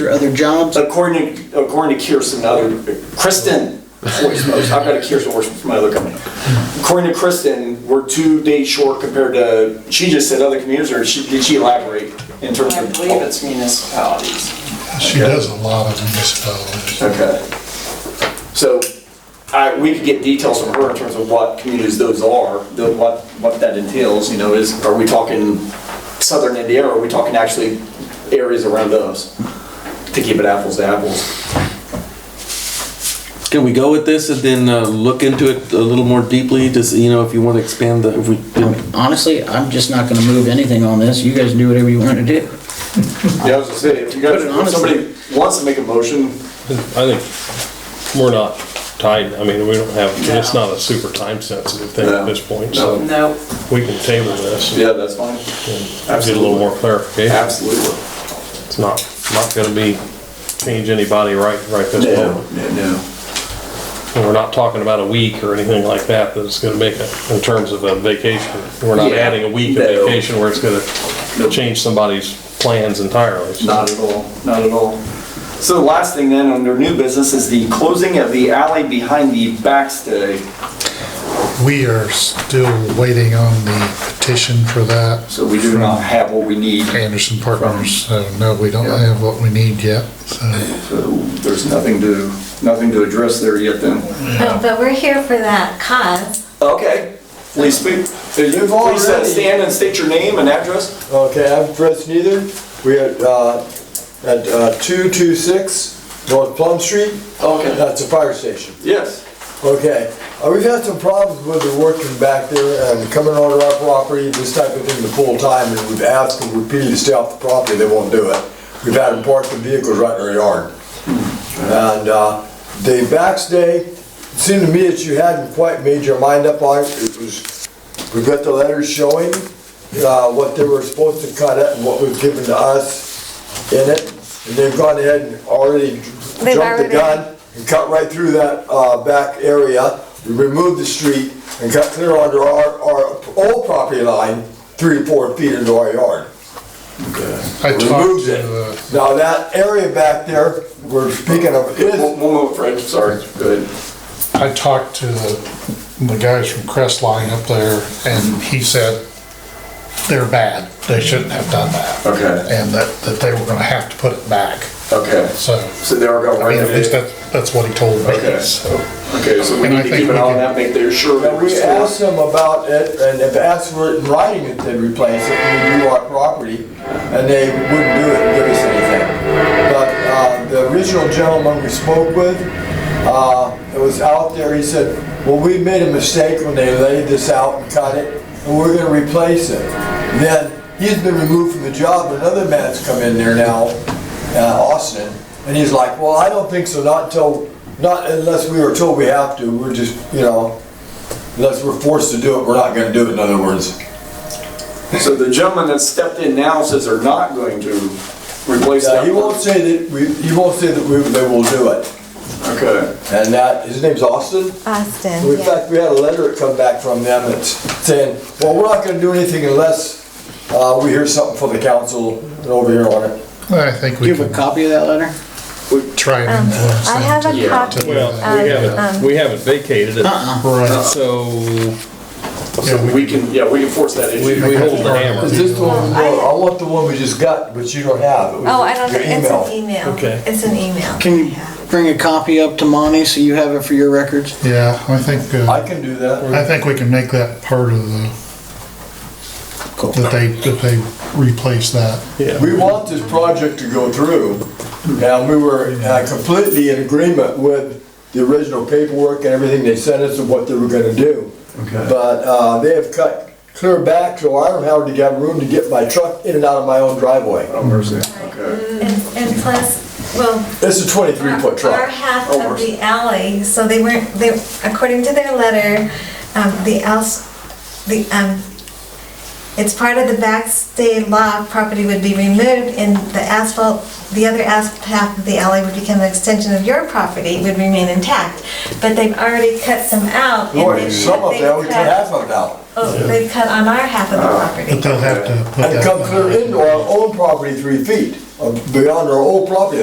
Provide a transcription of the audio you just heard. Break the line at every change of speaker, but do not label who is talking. your other jobs?
According, to- according to Kirsten, the other, Kristen, holy smokes, I've got a Kirsten working for my other company. According to Kristen, we're two days short compared to, she just said other communities, or she, did she elaborate in terms
I
of?
believe it's municipalities.
She does a lot of municipalities.
Okay. So, I, we could get details from her in terms of what communities those are, the- what, what that entails, you know, is, are we talking southern Indiana, or are we talking actually areas around us? To keep it apples to apples.
Can we go with this and then uh, look into it a little more deeply? Just you know, if you want to expand the, if we did,
Honestly, I'm just not gonna move anything on this. You guys do whatever you wanna do.
Yeah, I was gonna say, if you guys,
Put it
if
honestly.
somebody wants to make a motion,
I think we're not tied, I mean, we don't have, it's not a super time sensitive thing at this point, so
No,
we can table this. and
yeah, that's fine.
Get a little more clarification.
Absolutely.
It's not, not gonna be, change anybody right, right this
No,
moment.
no, no.
And we're not talking about a week or anything like that, that's gonna make a, in terms of a vacation. We're not
Yeah,
adding a week of
no.
vacation where it's gonna change somebody's plans entirely. so.
Not at all, not at all. So the last thing then, under new business, is the closing of the alley behind the backstay.
We are still waiting on the petition for that.
So we do not have what we need,
Anderson Partners, so no, we don't have what we need yet, so.
so there's nothing to, nothing to address there yet then.
But, but we're here for that cause.
Okay, please speak.
you've
Please uh,
already-
stand and state your name and address.
Okay, I've pressed neither. We are uh, at uh, 226 North Plum Street.
Okay.
That's a fire station.
Yes.
Okay, uh, we've had some problems with the working back there and coming onto our property, this type of thing, the full time, and we've asked them repeatedly to stay off the property, they won't do it. We've had them park the vehicles right in our yard. And uh, the backstay, it seemed to me that you hadn't quite made your mind up on it. It was, we got the letters showing uh, what they were supposed to cut it and what was given to us in it. And they've gone ahead and already
They've
jumped the
already-
gun and cut right through that uh, back area, removed the street and cut clear under our, our old property line, three to four feet into our yard.
I talked
Removed
to,
it.
uh,
Now, that area back there, we're speaking of, is
One one moment, Fred, sorry. Go ahead.
I talked to the, the guys from Crestline up there, and he said they're bad. They shouldn't have done that.
Okay.
And that, that they were gonna have to put it back,
Okay,
so.
so they are going
I mean, at least
right.
that, that's what he told
Okay.
me, so.
Okay, so we need
And I
to
think
keep an
we
eye on
can-
that, make their sure.
And
that
we
we're-
asked them about it, and if asked for it in writing, if they'd replace it, we do our property, and they wouldn't do it and give us anything. But uh, the original gentleman we spoke with, uh, it was out there, he said, well, we made a mistake when they laid this out and cut it, and we're gonna replace it. Then, he's been removed from the job, another man's come in there now, uh, Austin, and he's like, well, I don't think so, not until, not unless we were told we have to, we're just, you know, Unless we're forced to do it, we're not gonna do it, in other words.
So the gentleman that stepped in now says they're not going to replace
Yeah,
that.
he won't say that, we, he won't say that we, they will do it.
Okay,
And that, his name's Austin.
Austin,
In fact, we had a letter that come back from them that's saying, well, we're not gonna do anything unless, uh, we hear something from the council and over here on it.
I think
Do
we
you have a
can
copy of that letter?
try and uh,
Um,
influence
I
them
have a
to-
copy.
to do
Well,
that.
we
Um,
haven't, we haven't vacated it,
Uh-uh.
Right.
so
Yeah,
so we can, yeah, we can force that
we,
issue.
we hold the hammer.
Is this the one,
Um, I-
I want the one we just got, but you don't have. It was
Oh, I don't,
your
it's
email.
an email.
Okay.
It's an email.
Can you bring a copy up to Monty so you have it for your records?
Yeah, I think,
I
e-
uh,
can do that.
I think we can make that part of the,
Cool.
that they, that they replace that.
We want this project to go through, and we were uh, completely in agreement with the original paperwork and everything they sent us and what they were gonna do. But uh, they have cut clear back, so I don't have to get room to get my truck in and out of my own driveway.
Okay.
And, and plus, well,
It's a 23-foot
our
truck. Oh,
half of the alley, so they weren't, they, according to their letter, um, the else, the, um, it's part of the backstay lot, property would be removed and the asphalt, the other asphalt half of the alley would become an extension of your property, would remain intact. But they've already cut some out. and
Boy,
they've-
some of
they've
that, we cut
cut-
half of it out.
Oh, they've cut on our half of the
Uh,
But
property.
they'll have to put that.
And come clear into our own property three feet, uh, beyond our old property